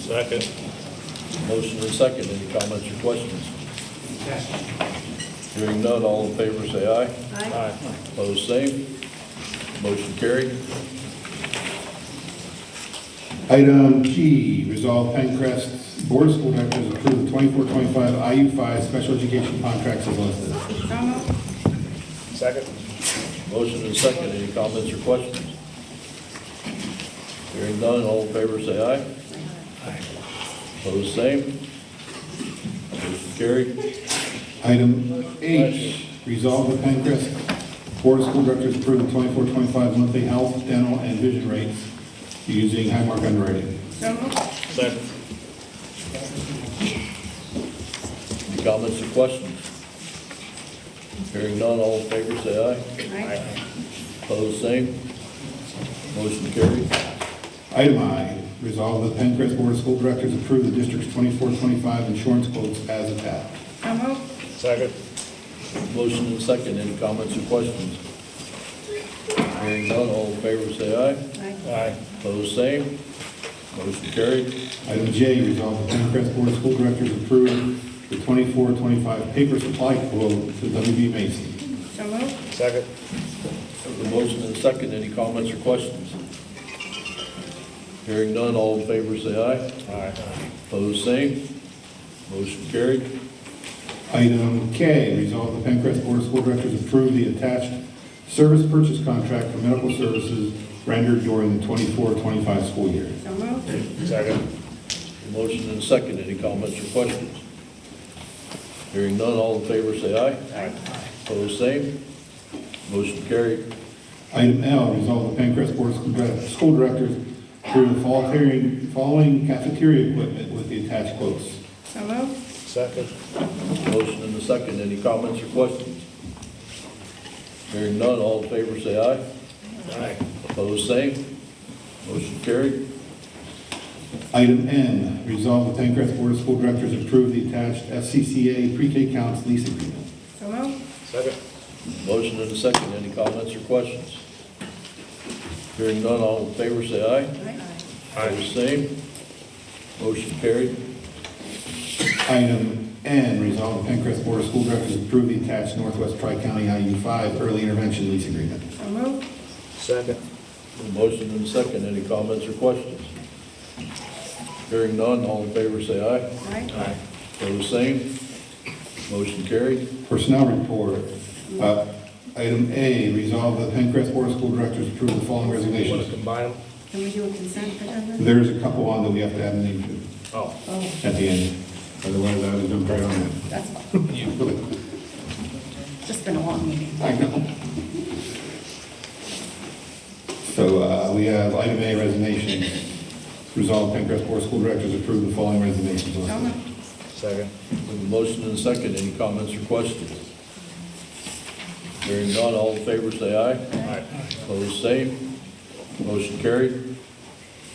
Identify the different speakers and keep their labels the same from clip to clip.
Speaker 1: Second.
Speaker 2: Motion and second, any comments or questions? Hearing none, all in favor say aye.
Speaker 3: Aye.
Speaker 1: Aye.
Speaker 2: Opposed, same. Motion carried.
Speaker 4: Item G, resolve Pencrest Board of School Directors approve twenty-four, twenty-five IU five special education contracts as listed.
Speaker 3: So moved.
Speaker 1: Second.
Speaker 2: Motion and second, any comments or questions? Hearing none, all in favor say aye. Opposed, same. Motion carried.
Speaker 4: Item H, resolve the Pencrest Board of School Directors approve twenty-four, twenty-five monthly health, dental, and vision rates using Highmark underwriting.
Speaker 3: So moved.
Speaker 1: Second.
Speaker 2: Any comments or questions? Hearing none, all in favor say aye.
Speaker 3: Aye.
Speaker 2: Opposed, same. Motion carried.
Speaker 4: Item I, resolve the Pencrest Board of School Directors approve the district's twenty-four, twenty-five insurance quotes as attached.
Speaker 3: So moved.
Speaker 1: Second.
Speaker 2: Motion and second, any comments or questions? Hearing none, all in favor say aye.
Speaker 3: Aye.
Speaker 1: Aye.
Speaker 2: Opposed, same. Motion carried.
Speaker 4: Item J, resolve the Pencrest Board of School Directors approve the 24-25 paper supply quote to WB Mason.
Speaker 3: So moved.
Speaker 1: Second.
Speaker 2: The motion and second, any comments or questions? Hearing none, all in favor say aye.
Speaker 1: Aye.
Speaker 2: Opposed, same. Motion carried.
Speaker 4: Item K, resolve the Pencrest Board of School Directors approve the attached service purchase contract for medical services rendered during the 24-25 school year.
Speaker 3: So moved.
Speaker 1: Second.
Speaker 2: The motion and second, any comments or questions? Hearing none, all in favor say aye.
Speaker 1: Aye.
Speaker 2: Opposed, same. Motion carried.
Speaker 4: Item L, resolve the Pencrest Board of School Direct- School Directors approve the following- following cafeteria equipment with the attached quotes.
Speaker 3: So moved.
Speaker 1: Second.
Speaker 2: Motion and a second, any comments or questions? Hearing none, all in favor say aye.
Speaker 1: Aye.
Speaker 2: Opposed, same. Motion carried.
Speaker 4: Item N, resolve the Pencrest Board of School Directors approve the attached FCCA pre-K counts lease agreement.
Speaker 3: So moved.
Speaker 1: Second.
Speaker 2: Motion and a second, any comments or questions? Hearing none, all in favor say aye.
Speaker 3: Aye.
Speaker 2: Opposed, same. Motion carried.
Speaker 4: Item N, resolve the Pencrest Board of School Directors approve the attached Northwest Tri-County IU5 early intervention lease agreement.
Speaker 3: So moved.
Speaker 1: Second.
Speaker 2: Motion and a second, any comments or questions? Hearing none, all in favor say aye.
Speaker 3: Aye.
Speaker 1: Aye.
Speaker 2: Opposed, same. Motion carried.
Speaker 4: Personnel report. Uh, Item A, resolve the Pencrest Board of School Directors approve the following
Speaker 1: Want to
Speaker 4: resignations.
Speaker 1: combine them?
Speaker 3: Can we do a consent agenda?
Speaker 4: There's a couple on that we have to add a name to
Speaker 1: Oh.
Speaker 3: Oh,
Speaker 4: at the end, otherwise I would jump right on it.
Speaker 3: that's fine. Just been a long meeting.
Speaker 4: I know. So uh, we have item A resignations. Resolve Pencrest Board of School Directors approve the following resignations.
Speaker 3: So moved.
Speaker 1: Second.
Speaker 2: We have a motion and a second, any comments or questions? Hearing none, all in favor say aye.
Speaker 1: Aye.
Speaker 2: Opposed, same. Motion carried.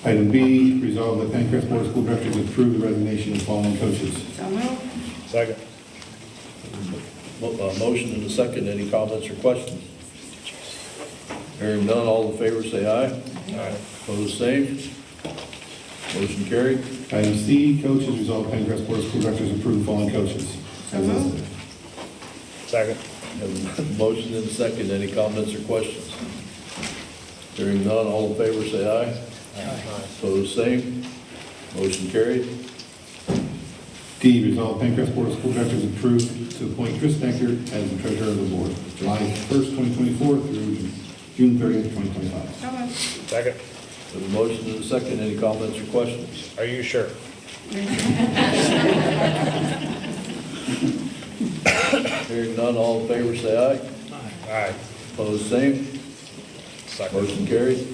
Speaker 4: Item B, resolve that Pencrest Board of School Directors approve the resignation of following coaches.
Speaker 3: So moved.
Speaker 1: Second.
Speaker 2: Mo- uh, Motion and a second, any comments or questions? Hearing none, all in favor say aye.
Speaker 1: Aye.
Speaker 2: Opposed, same. Motion carried.
Speaker 4: Item C, coaches, resolve Pencrest Board of School Directors approve the following coaches. As listed.
Speaker 1: Second.
Speaker 2: We have a Motion and a second, any comments or questions? Hearing none, all in favor say aye.
Speaker 1: Aye.
Speaker 2: Opposed, same. Motion carried.
Speaker 4: D, resolve Pencrest Board of School Directors approve to appoint Chris Decker as the treasurer of the board, July 1st, 2024 through June 30th, 2025.
Speaker 3: So moved.
Speaker 1: Second.
Speaker 2: We have a motion and a second, any comments or questions?
Speaker 1: Are you sure?
Speaker 2: Hearing none, all in favor, say aye.
Speaker 1: Aye.
Speaker 2: Opposed, same.
Speaker 1: Second.
Speaker 2: Motion carried.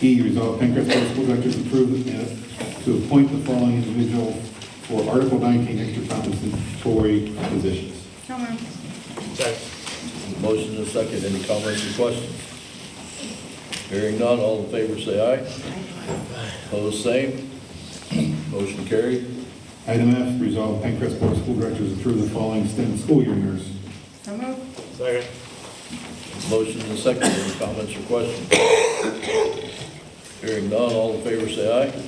Speaker 4: E, resolve Pencrest Board of School Directors approve uh, to appoint the following individual for Article 19 extra compensatory positions.
Speaker 3: So moved.
Speaker 1: Second.
Speaker 2: Motion and a second, any comments or questions? Hearing none, all in favor, say aye.
Speaker 3: Aye.
Speaker 2: Opposed, same. Motion carried.
Speaker 4: Item F, resolve Pencrest Board of School Directors approve the following extended school year nurse.
Speaker 3: So moved.
Speaker 1: Second.
Speaker 2: Motion and a second, any comments or questions? Hearing none, all in favor, say aye.